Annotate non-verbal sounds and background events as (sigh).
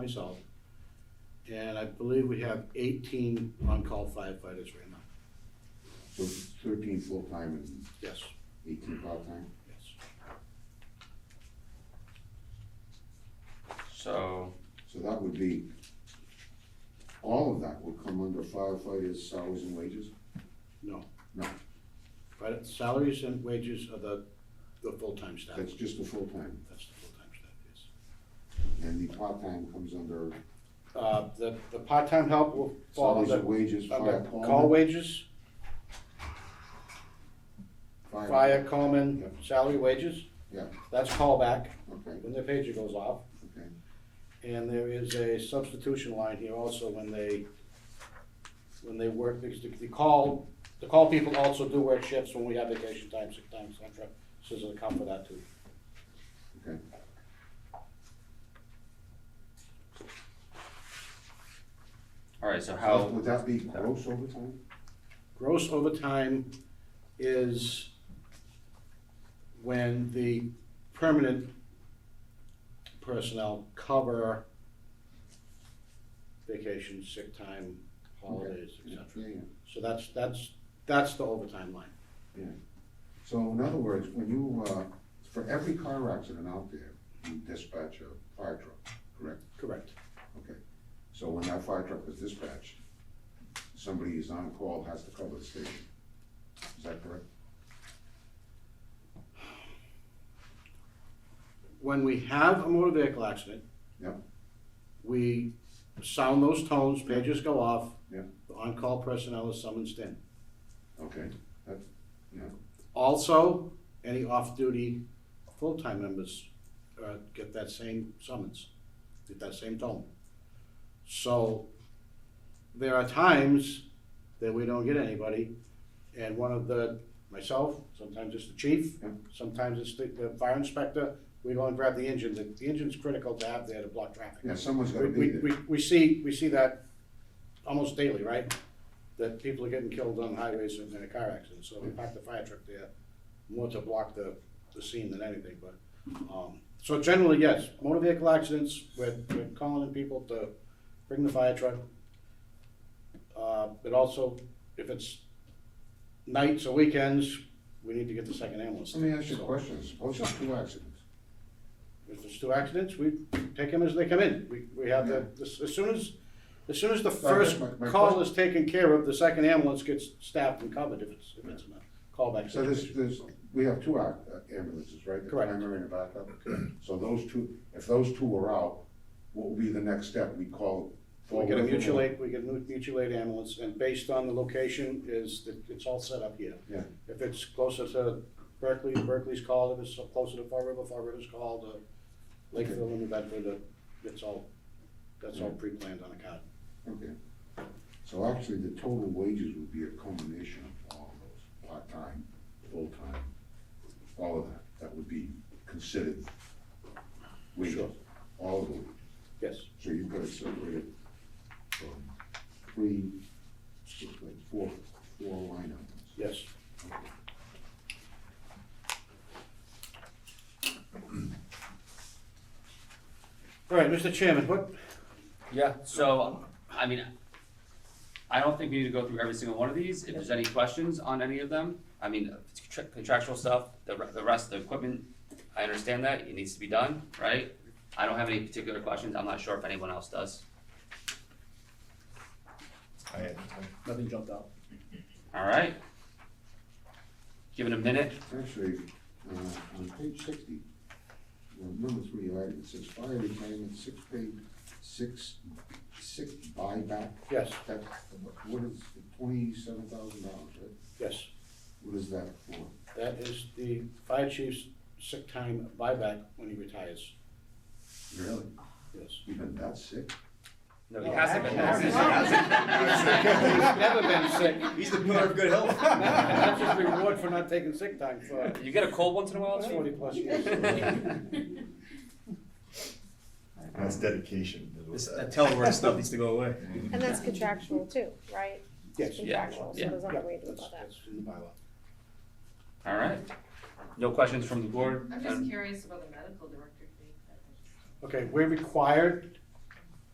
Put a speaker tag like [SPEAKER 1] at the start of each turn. [SPEAKER 1] myself. And I believe we have eighteen on-call firefighters right now.
[SPEAKER 2] So thirteen full-time and
[SPEAKER 1] Yes,
[SPEAKER 2] eighteen part-time?
[SPEAKER 1] yes.
[SPEAKER 3] So,
[SPEAKER 2] So that would be, all of that would come under firefighters' salaries and wages?
[SPEAKER 1] No.
[SPEAKER 2] No.
[SPEAKER 1] But salaries and wages are the, the full-time staff.
[SPEAKER 2] That's just the full-time,
[SPEAKER 1] That's the full-time staff, yes.
[SPEAKER 2] and the part-time comes under
[SPEAKER 1] Uh, the, the part-time help will fall
[SPEAKER 2] salaries
[SPEAKER 1] under,
[SPEAKER 2] and wages, fire
[SPEAKER 1] under call
[SPEAKER 2] department?
[SPEAKER 1] wages, fire common,
[SPEAKER 2] Yep.
[SPEAKER 1] salary wages.
[SPEAKER 2] Yeah.
[SPEAKER 1] That's callback
[SPEAKER 2] Okay,
[SPEAKER 1] when their pager goes off.
[SPEAKER 2] okay,
[SPEAKER 1] And there is a substitution line here also when they, when they work, because the, the call, the call people also do work shifts when we have vacation time, sick time, et cetera. So there's an account for that too.
[SPEAKER 2] okay.
[SPEAKER 3] alright, so how,
[SPEAKER 2] Would that be gross overtime?
[SPEAKER 1] Gross overtime is when the permanent personnel cover vacation, sick time, holidays, et
[SPEAKER 2] Yeah,
[SPEAKER 1] cetera.
[SPEAKER 2] yeah.
[SPEAKER 1] So that's, that's, that's the overtime line.
[SPEAKER 2] So in other words, when you, uh, for every car accident out there, you dispatch a fire truck, correct?
[SPEAKER 1] Correct.
[SPEAKER 2] Okay, so when that fire truck was dispatched, somebody who's on call has to cover the station. Is that correct?
[SPEAKER 1] when we have a motor vehicle accident.
[SPEAKER 2] Yep.
[SPEAKER 1] We sound those tones, pages go off.
[SPEAKER 2] Yep.
[SPEAKER 1] The on-call personnel is summoned in.
[SPEAKER 2] Okay, that's, yeah,
[SPEAKER 1] Also, any off-duty full-time members, uh, get that same summons, get that same tone. So, there are times that we don't get anybody, and one of the, myself, sometimes it's the chief,
[SPEAKER 2] Yep.
[SPEAKER 1] sometimes it's the, the fire inspector, we go and grab the engine, the, the engine's critical to have there to block traffic.
[SPEAKER 2] yeah, someone's
[SPEAKER 1] We,
[SPEAKER 2] gotta be
[SPEAKER 1] we,
[SPEAKER 2] there.
[SPEAKER 1] we, we see, we see that almost daily, right? That people are getting killed on highways and in a car accident, so we park the fire truck there more to block the, the scene than anything, but, um, so generally, yes, motor vehicle accidents, we're, we're calling in people to bring the fire truck. Uh, but also, if it's nights or weekends, we need to get the second ambulance.
[SPEAKER 2] Let me ask you a
[SPEAKER 1] So,
[SPEAKER 2] question, suppose there's two accidents,
[SPEAKER 1] if there's two accidents, we take them as they come in. We, we have the, as as soon as, as soon as the
[SPEAKER 2] Uh, My- my-
[SPEAKER 1] first
[SPEAKER 2] my
[SPEAKER 1] call
[SPEAKER 2] question-
[SPEAKER 1] is taken care of, the second ambulance gets staffed and covered if it's, if it's a callback
[SPEAKER 2] so there's,
[SPEAKER 1] situation.
[SPEAKER 2] there's, we have two ac- uh, ambulances, right? The
[SPEAKER 1] Correct.
[SPEAKER 2] Primary and a backup, so those two, if those two are out, what would be the next step, we call?
[SPEAKER 1] We get a
[SPEAKER 2] forward?
[SPEAKER 1] mutual aid, we get a mu- mutual aid ambulance, and based on the location is, that it's all set up here.
[SPEAKER 2] Yeah.
[SPEAKER 1] If it's closer to Berkeley, Berkeley's called, if it's closer to Fall River, Fall River's called, uh, Lakeville and New Bedford, uh, it's all, that's all pre-planned on the card.
[SPEAKER 2] Okay, so actually, the total wages would be a combination of all those, part-time, full-time, all of that, that would be considered wages,
[SPEAKER 1] Sure.
[SPEAKER 2] all of them,
[SPEAKER 1] Yes,
[SPEAKER 2] so you've got it separated from three, six, like four, four line items.
[SPEAKER 1] yes. All right, Mr. Chairman, what,
[SPEAKER 3] yeah, so, I mean, I don't think we need to go through every single one of these, if there's any questions on any of them, I mean, if it's contra- contractual stuff, the, re- the rest of the equipment, I understand that, it needs to be done, right? I don't have any particular questions, I'm not sure if anyone else does,
[SPEAKER 4] I had,
[SPEAKER 5] Nothing jumped out.
[SPEAKER 3] alright? Give it a minute,
[SPEAKER 2] Actually, uh, on page sixty, well, number three item, it says fire retirement, six paid, six, six buyback.
[SPEAKER 1] yes,
[SPEAKER 2] That's, what is, twenty-seven thousand dollars, right?
[SPEAKER 1] yes,
[SPEAKER 2] What is that for?
[SPEAKER 1] that is the fire chief's sick time buyback when he retires,
[SPEAKER 2] Really?
[SPEAKER 1] yes.
[SPEAKER 2] Even that sick?
[SPEAKER 3] no, he hasn't been.
[SPEAKER 1] He's (laughs) never been sick.
[SPEAKER 5] He's the pillar of good health.
[SPEAKER 1] That's his reward for not taking sick time for
[SPEAKER 3] You get a cold once in a while, it's
[SPEAKER 1] forty plus
[SPEAKER 6] (laughs)
[SPEAKER 1] years.
[SPEAKER 3] (laughs)
[SPEAKER 4] that's dedication. is what
[SPEAKER 5] That
[SPEAKER 4] that- (laughs)
[SPEAKER 5] telework stuff needs to go away.
[SPEAKER 6] And that's contractual too, right?
[SPEAKER 1] Yes. Yeah,
[SPEAKER 6] Contractual, so
[SPEAKER 3] yeah.
[SPEAKER 6] there's
[SPEAKER 1] Yeah,
[SPEAKER 6] not a way to do
[SPEAKER 1] that's,
[SPEAKER 6] about that.
[SPEAKER 1] that's in the bylaw.
[SPEAKER 3] Alright, no questions from the board?
[SPEAKER 7] I'm just curious about the medical director thing.
[SPEAKER 1] Okay, we're required